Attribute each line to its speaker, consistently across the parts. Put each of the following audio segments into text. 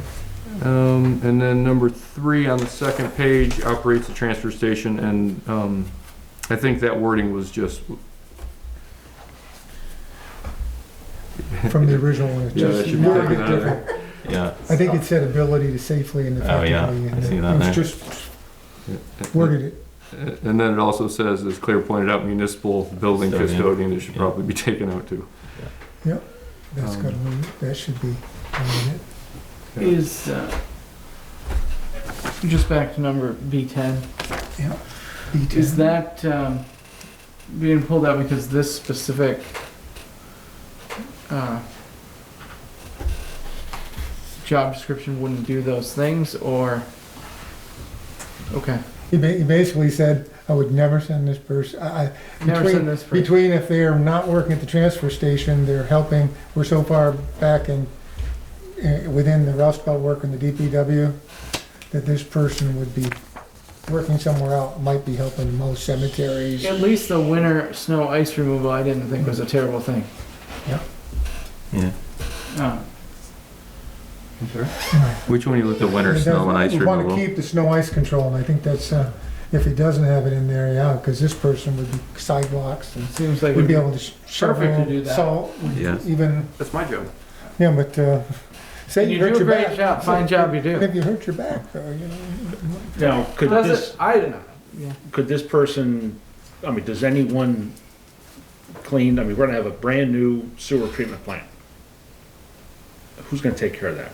Speaker 1: station, Um, and then number three on the second page operates the transfer station, and, um, I think that wording was just,
Speaker 2: from the original one. It's
Speaker 1: Yeah,
Speaker 2: just
Speaker 1: that should
Speaker 2: a
Speaker 1: be
Speaker 2: little
Speaker 1: taken
Speaker 2: bit
Speaker 1: out of
Speaker 2: different.
Speaker 3: Yeah,
Speaker 2: I think it said ability to safely and
Speaker 3: Oh,
Speaker 2: effectively.
Speaker 3: yeah. I
Speaker 2: and
Speaker 3: see
Speaker 2: it
Speaker 3: that
Speaker 2: was
Speaker 3: there.
Speaker 2: just worded it.
Speaker 1: and then it also says, as Claire pointed out, municipal building
Speaker 3: Custodian.
Speaker 1: custodian, it should
Speaker 3: Yeah.
Speaker 1: probably be taken out too.
Speaker 2: That's
Speaker 1: Um,
Speaker 2: got to, that should be on it.
Speaker 1: Yeah.
Speaker 4: Is, uh, just back to number B10,
Speaker 2: B10.
Speaker 4: is that um, being pulled out because this specific uh, job description wouldn't do those things, or? Okay,
Speaker 2: He ba- he basically said, I would never send this person, I, I-
Speaker 4: never
Speaker 2: Between-
Speaker 4: seen this for.
Speaker 2: between if they are not working at the transfer station, they're helping, we're so far back in, eh, within the Rust Belt work in the DPW, that this person would be working somewhere else, might be helping most cemeteries.
Speaker 4: At least the winter snow ice removal, I didn't think was a terrible thing.
Speaker 3: yeah.
Speaker 4: Uh,
Speaker 1: Which one you looked
Speaker 3: The
Speaker 1: at?
Speaker 3: winter
Speaker 2: It
Speaker 3: snow and
Speaker 2: doesn't-
Speaker 3: ice
Speaker 2: we
Speaker 3: removal.
Speaker 2: Want to keep the snow ice control, and I think that's, uh, if he doesn't have it in there, yeah, because this person would be sidewalks and
Speaker 4: Seems like.
Speaker 2: would be able to sh-
Speaker 4: Perfect to
Speaker 2: shovel
Speaker 4: do that.
Speaker 2: salt,
Speaker 3: Yeah.
Speaker 2: even,
Speaker 1: That's my job.
Speaker 2: yeah, but, uh, say
Speaker 4: And
Speaker 2: you
Speaker 4: you do
Speaker 2: hurt
Speaker 4: a
Speaker 2: your
Speaker 4: great
Speaker 2: back.
Speaker 4: job, fine job you do.
Speaker 2: If you hurt your back, though, you know.
Speaker 5: Now, could
Speaker 4: Does it-
Speaker 5: this,
Speaker 4: I don't know. Yeah.
Speaker 5: could this person, I mean, does anyone clean, I mean, we're gonna have a brand-new sewer treatment plant. Who's gonna take care of that?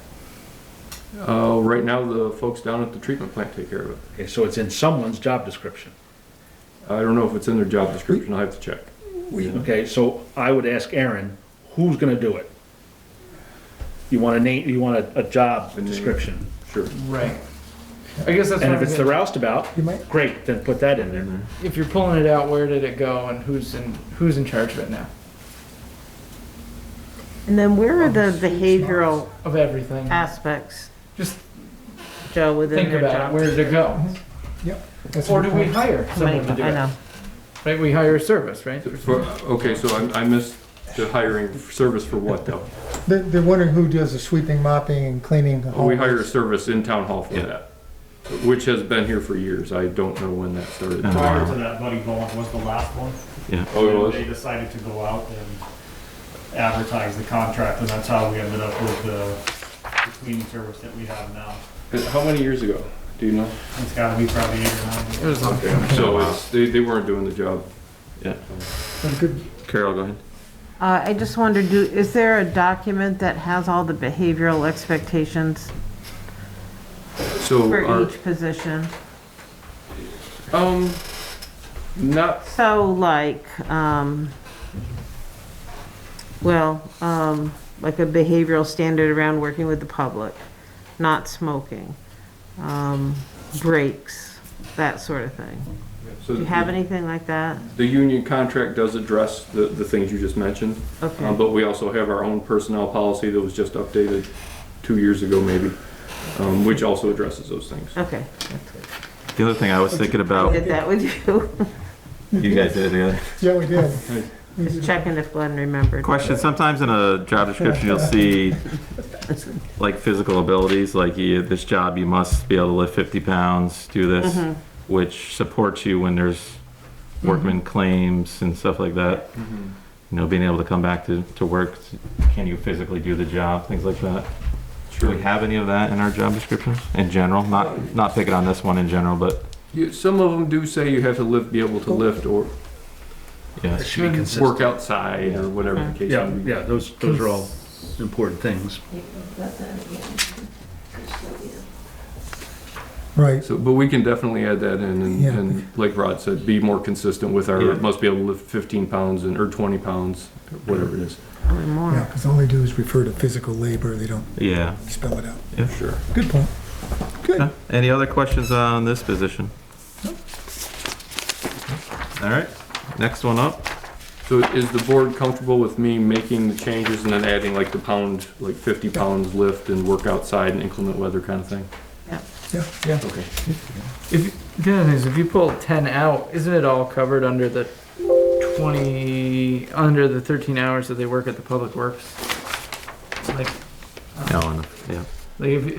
Speaker 1: Uh, right now, the folks down at the treatment plant take care of it.
Speaker 5: Okay, so it's in someone's job description.
Speaker 1: I don't know if it's in their job description, I'll have to check.
Speaker 5: Okay, so I would ask Aaron, who's gonna do it? You want a name, you want a, a job
Speaker 1: A name.
Speaker 5: description.
Speaker 1: Sure.
Speaker 4: Right. I guess that's.
Speaker 5: And
Speaker 4: what
Speaker 5: if
Speaker 4: I'm
Speaker 5: it's the
Speaker 4: getting-
Speaker 5: roustabout,
Speaker 2: You might,
Speaker 5: great, then put that in there.
Speaker 1: Mm-hmm.
Speaker 4: If you're pulling it out, where did it go and who's in, who's in charge of it now?
Speaker 6: And then where are the behavioral
Speaker 4: Of everything?
Speaker 6: Uh, aspects,
Speaker 4: Just
Speaker 6: Joe, within
Speaker 4: think
Speaker 6: their
Speaker 4: about it,
Speaker 6: job?
Speaker 4: where did it go?
Speaker 2: that's
Speaker 4: Or
Speaker 2: what
Speaker 4: do we
Speaker 2: we,
Speaker 4: hire
Speaker 6: How many-
Speaker 4: someone to do
Speaker 6: I
Speaker 4: it?
Speaker 6: know.
Speaker 4: Right, we hire a service, right?
Speaker 1: For- Okay, so I, I missed the hiring service for what though?
Speaker 2: they're, they're wondering who does the sweeping, mopping, and cleaning. the
Speaker 1: Well, We hired a
Speaker 2: hallways.
Speaker 1: service in town hall for
Speaker 3: Yeah.
Speaker 1: that, which has been here for years. I don't know when that started.
Speaker 3: Uh-huh.
Speaker 7: Prior to that, Buddy Bowen was the last one.
Speaker 1: Oh, it
Speaker 7: They
Speaker 1: was?
Speaker 7: decided to go out and advertise the contract, and that's how we ended up with the the cleaning service that we have now.
Speaker 1: Uh, How many years ago? Do you know?
Speaker 7: It's gotta be probably eight or nine.
Speaker 4: It was long.
Speaker 1: So it's, they, they weren't doing the job.
Speaker 2: Good-
Speaker 1: Carol, go ahead.
Speaker 6: Uh, I just wondered, do, is there a document that has all the behavioral expectations
Speaker 1: So,
Speaker 6: for
Speaker 1: our-
Speaker 6: each position?
Speaker 1: um, not,
Speaker 6: So like, um, well, um, like a behavioral standard around working with the public, not smoking, um, breaks, that sort of thing.
Speaker 1: so
Speaker 6: Do you have
Speaker 1: the-
Speaker 6: anything like that?
Speaker 1: the union contract does address the, the things you just mentioned. Um,
Speaker 6: Okay,
Speaker 1: but we also have our own personnel policy that was just updated two years ago maybe, um, which also addresses those things.
Speaker 6: okay.
Speaker 3: The other thing I was thinking
Speaker 6: I
Speaker 3: about,
Speaker 6: did that with you.
Speaker 3: you guys did it together.
Speaker 2: Yeah, we did. We did.
Speaker 6: Just checking if Glenn remembered.
Speaker 3: Question, sometimes in a job description, you'll see like physical abilities, like you, this job, you must be able to lift fifty pounds, do this,
Speaker 6: Mhm.
Speaker 3: which supports you when there's workman claims and stuff like that.
Speaker 1: Mm-hmm.
Speaker 3: You know, being able to come back to, to work, can you physically do the job, things like that. Do we have any of that in our job descriptions in general? Not, not picking on this one in general, but
Speaker 1: You, some of them do say you have to lift, be able to lift or
Speaker 3: yeah.
Speaker 5: It should be
Speaker 1: work
Speaker 5: consistent.
Speaker 1: outside or whatever the case
Speaker 5: Yeah,
Speaker 1: may be.
Speaker 5: Mm-hmm. yeah, those, those are all important things.
Speaker 2: Right.
Speaker 1: So, but we can definitely add that in and,
Speaker 2: Yeah.
Speaker 1: and like Rod said, be more consistent with our,
Speaker 3: Yeah.
Speaker 1: must be able to lift fifteen pounds and, or twenty pounds, whatever it is.
Speaker 6: Probably more.
Speaker 2: Yeah, because all they do is refer to physical labor, they don't
Speaker 3: Yeah.
Speaker 2: spell it out.
Speaker 1: Sure.
Speaker 2: Good point. Good.
Speaker 3: Any other questions on this position? All right, next one up.
Speaker 1: So is the board comfortable with me making the changes and then adding like the pound, like fifty pounds lift and work outside and inclement weather kind of thing?
Speaker 2: Yeah.
Speaker 1: Okay.
Speaker 4: If, the other thing is, if you pull ten out, isn't it all covered under the twenty, under the thirteen hours that they work at the public works? Like,
Speaker 3: No, yeah.
Speaker 4: like if,